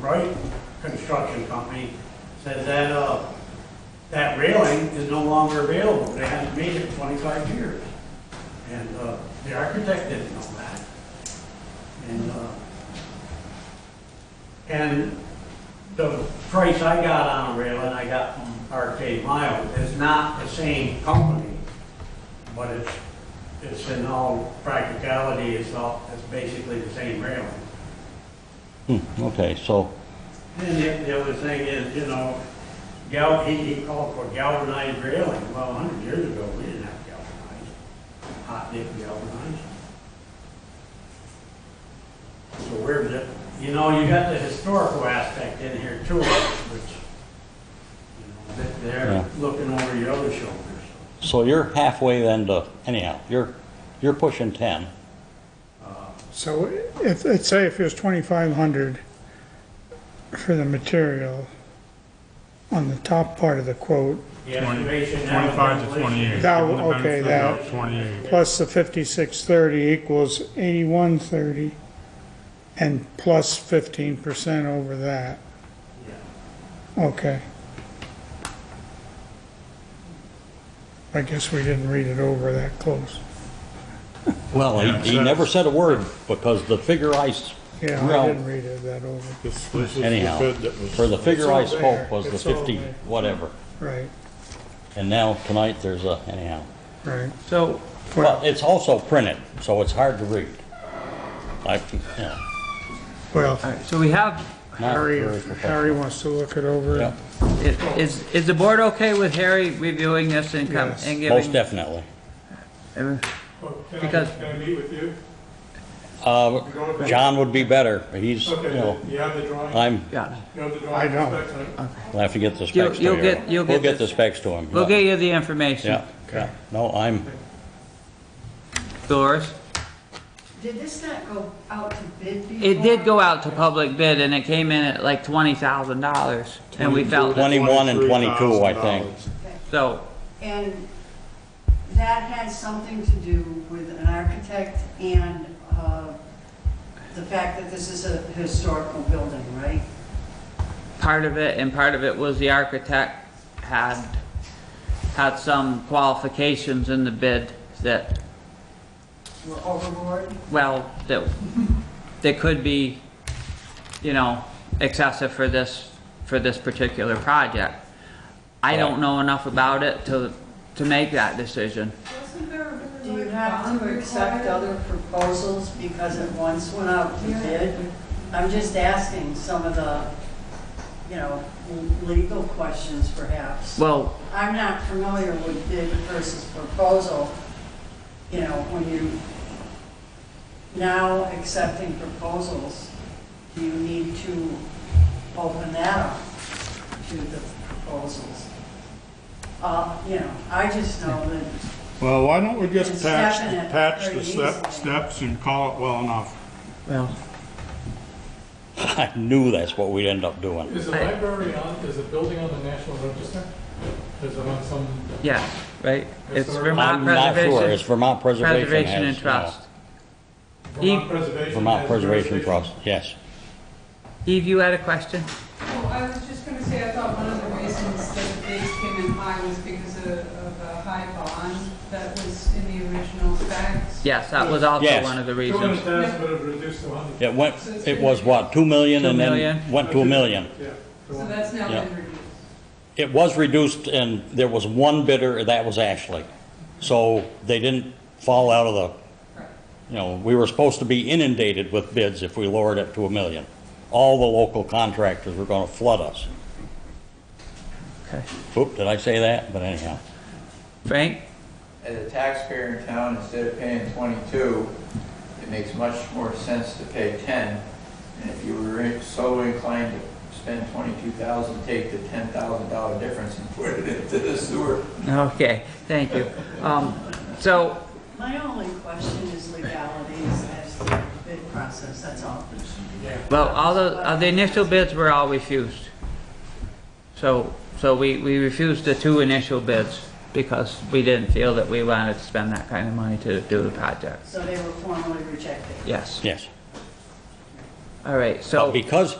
Bright Construction Company says that, uh, that railing is no longer available. They haven't made it twenty-five years. And, uh, the architect didn't know that. And, uh, and the price I got on a railing, I got from RK Miles, is not the same company, but it's, it's in all practicality, it's all, it's basically the same railing. Hmm, okay, so, And the, the other thing is, you know, gal, he, he called for galvanized railing, well, a hundred years ago, we didn't have galvanized, hot dip galvanized. So where's it, you know, you got the historical aspect in here too, which, you know, that Yeah. they're looking over your other shoulder, so, so you're halfway then to, anyhow, you're, you're pushing 10. So if, let's say if it was twenty-five hundred for the material on the top part of the quote, the Twenty- estimation. now is 25 to 28. That- Give them the okay, benefit that- of 28. plus the fifty-six thirty equals eighty-one thirty, and plus fifteen percent over that, Yeah. okay. I guess we didn't read it over that close. Well, Yeah, he, he so- never said a word because the figure I, s- Yeah, Well- I didn't read it that over, This, this is the anyhow, bid that was. for the figure I It's all spoke there. was the It's all 50, there. whatever. right, And now tonight there's a, anyhow. right. So. Well- But it's also printed, so it's hard to read. I, you know, Well, All right, so we have, not Harry, very if Harry professional. wants to look it over. Yep, i- is, is the board okay with Harry reviewing this and com- Yes. and most giving? definitely. Because- Can I meet with you? Uh, John would be better, he's, you know, Okay, you have the drawing? I'm, Yeah, You have the drawing? I don't. Respect. I'll have to get the specs to you. you'll get- you'll We'll get get the this. specs to him. we'll yeah. get you the information, Yeah, yeah, no, I'm, Doris. Did this not go out to bid before? It did go out to public bid and it came in at like twenty thousand dollars and we felt it. 21 and 22, I think. $23,000. So, And that had something to do with an architect and uh, the fact that this is a historical building, right? part of it, and part of it was the architect had, had some qualifications in the bid that, We're overboard? well, that, that could be, you know, excessive for this, for this particular project. I don't know enough about it to, to make that decision. Do you have to accept other proposals because it once went out to bid? I'm just asking some of the, you know, legal questions perhaps. Well, I'm not familiar with bid versus proposal, you know, when you now accepting proposals, do you need to open that up to the proposals? Uh, you know, I just know that Well, why don't we just It's patch, definite, patch very the step, easily. steps and call it well enough? well, I knew that's what we'd end up doing. Is the library on, is the building on the National Register? Is it on some, yeah, right? It's Vermont I'm not sure, it's Preservation, Vermont Preservation has. Preservation and no. Trust. Vermont Preservation? Vermont has Preservation jurisdiction? Trust, yes. Eve, you had a question? Well, I was just gonna say, I thought one of the reasons that the base came in high was because of, of a high bond that was in the original specs. Yes, that was also Yes. one of the Two reasons. hundred thousand, but it reduced to hundred. It went, it was what, 2 million Two and then million. went to a million? Yeah. to So one. that's now Yeah. been reduced. It was reduced and there was one bidder, that was Ashley. So they didn't fall out of the, Correct. you know, we were supposed to be inundated with bids if we lowered it to a million. All the local contractors were gonna flood us. Okay. Oop, did I say that? But anyhow. Frank? as a taxpayer in town, instead of paying 22, it makes much more sense to pay 10. And if you were so inclined to spend 22,000, take the $10,000 difference and put it into the sewer. Okay, thank you. Um, so, my only question is legalities as to the bid process, that's all. well, all the, uh, the initial bids were all refused. So, so we, we refused the two initial bids because we didn't feel that we wanted to spend that kind of money to do the project. So they were formally rejected. Yes. Yes. All right, But so, because